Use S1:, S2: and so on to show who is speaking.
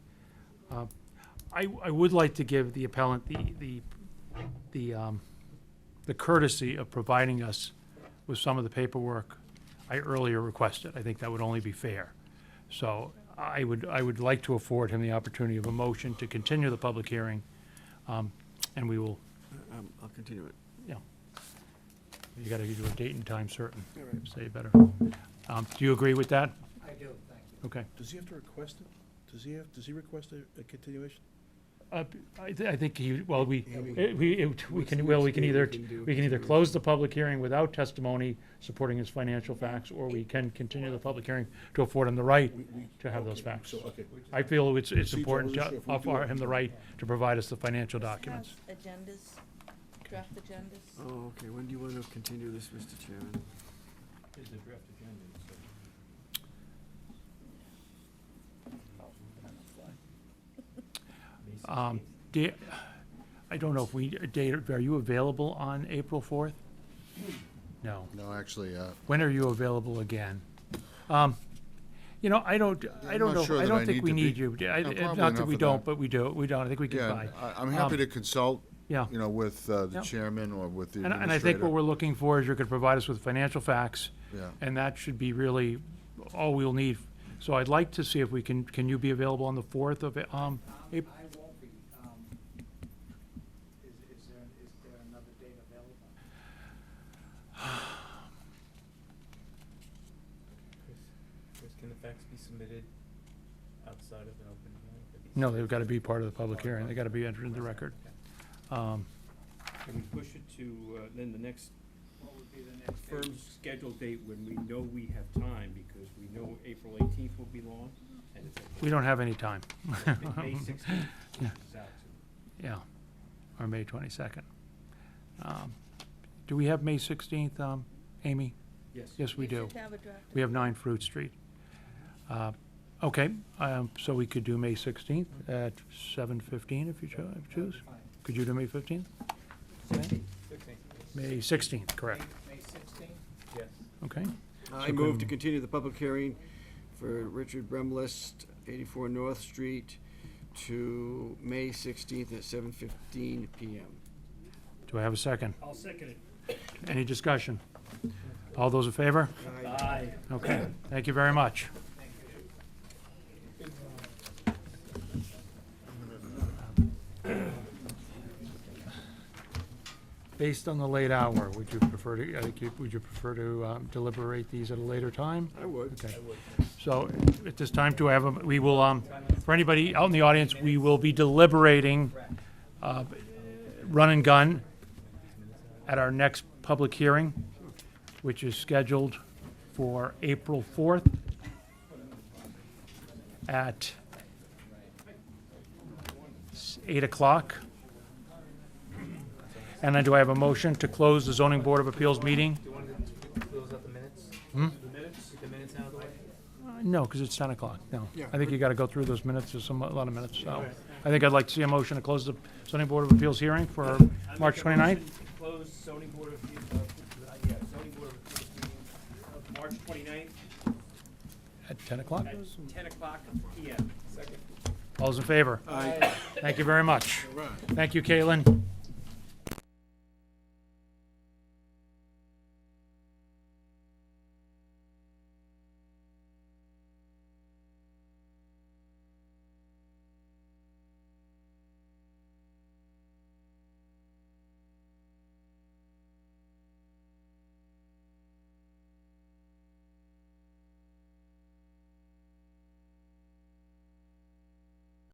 S1: Uh, I, I would like to give the appellant the, the, the, um, the courtesy of providing us with some of the paperwork I earlier requested. I think that would only be fair. So I would, I would like to afford him the opportunity of a motion to continue the public hearing, um, and we will,
S2: Um, I'll continue it.
S1: you know, you gotta do a date and time certain,
S2: All right.
S1: say it better. Um, do you agree with that?
S3: I do, thank you.
S1: Okay.
S4: Does he have to request it? Does he have, does he request a, a continuation?
S1: Uh, I, th- I think he, well, we,
S2: Yeah, we-
S1: it- we, it- we
S2: What's
S1: can,
S2: the
S1: well,
S2: next
S1: we can
S2: date
S1: either,
S2: we can do?
S1: we can either close the public hearing without testimony supporting his financial facts, or we can continue the public hearing to afford him the right
S4: We- we-
S1: to have those
S4: okay,
S1: facts.
S4: So, okay.
S1: I feel it's, it's
S4: Procedural,
S1: important
S4: we're sure
S1: to
S4: if we do
S1: offer
S4: it.
S1: him the right to provide us the financial documents.
S5: Have Agendas, draft agendas.
S2: Oh, okay, when do you want to continue this, Mr. Chairman?
S1: Um, da- I don't know if we, Dave, are you available on April fourth? No.
S6: No, actually, uh,
S1: When are you available again? Um, You know, I don't, I
S6: I'm
S1: don't
S6: not
S1: know,
S6: sure
S1: I
S6: that
S1: don't
S6: I
S1: think
S6: need
S1: we
S6: to be-
S1: need you. I-
S6: No,
S1: it-
S6: probably
S1: Not that
S6: not
S1: we
S6: for
S1: don't,
S6: that.
S1: but we do, we don't, I think we can
S6: yeah,
S1: buy.
S6: I- I'm
S1: Um,
S6: happy to consult,
S1: Yeah.
S6: you know, with uh, the
S1: Yeah.
S6: chairman or with the
S1: And,
S6: administrator.
S1: and I think what we're looking for is you're going to provide us with financial facts,
S6: Yeah,
S1: and that should be really all we'll need. So I'd like to see if we can, can you be available on the 4th of, um,
S3: Um,
S1: April?
S3: I won't be, um, is, is there, is there another date available?
S7: Chris, Chris, can the facts be submitted outside of an open hearing? Could these-
S1: No, they've got to be part of the public hearing. They've got to be entered into the record. Um,
S8: Can we push it to, uh, then the next
S3: What would be the next date?
S8: firm scheduled date when we know we have time, because we know April eighteenth will be long, and it's.
S1: We don't have any time.
S8: May- May sixteenth is out.
S1: Yeah, or May 22nd. Um, Do we have May 16th, um, Amy?
S8: Yes.
S1: Yes, we do.
S5: should have a draft.
S1: We have 9 Fruit Street. Uh, Okay, um, so we could do May 16th at 7:15 if you cho- if you choose.
S3: Fine.
S1: Could you do May 15th?
S7: Sixteen,
S1: May 16th, correct.
S3: May sixteenth?
S7: yes.
S1: Okay,
S2: I move to continue the public hearing for Richard Bremlist, 84 North Street, to May 16th at 7:15 PM.
S1: do I have a second?
S8: I'll second it.
S1: Any discussion? All those in favor?
S8: Aye.
S1: Okay, thank you very much. Based on the late hour, would you prefer to, I think you- would you prefer to um, deliberate these at a later time?
S2: I would.
S1: Okay. So at this time, do I have, a we will, um, for anybody out in the audience, we will be deliberating uh, run and gun at our next public hearing, which is scheduled for April 4th at s- 8 o'clock. And then do I have a motion to close the Zoning Board of Appeals meeting?
S7: Do you want to close out the minutes?
S1: Hmm?
S7: The minutes? Get the minutes out of the way?
S1: Uh, No, because it's 10 o'clock, no.
S2: Yeah.
S1: I think you got to go through those minutes, there's some, a lot of minutes, so. I think I'd like to see a motion to close the zoning board of appeals hearing for
S8: I make
S1: March
S8: a
S1: 29th.
S8: motion to Close zoning board of, Appeals- uh, yeah, zoning board of Appeals meeting of March 29th
S1: At 10 o'clock?
S8: at ten o'clock PM. Second.
S1: All's in favor? Thank you very much.
S2: All right.
S1: Thank you, Caitlin.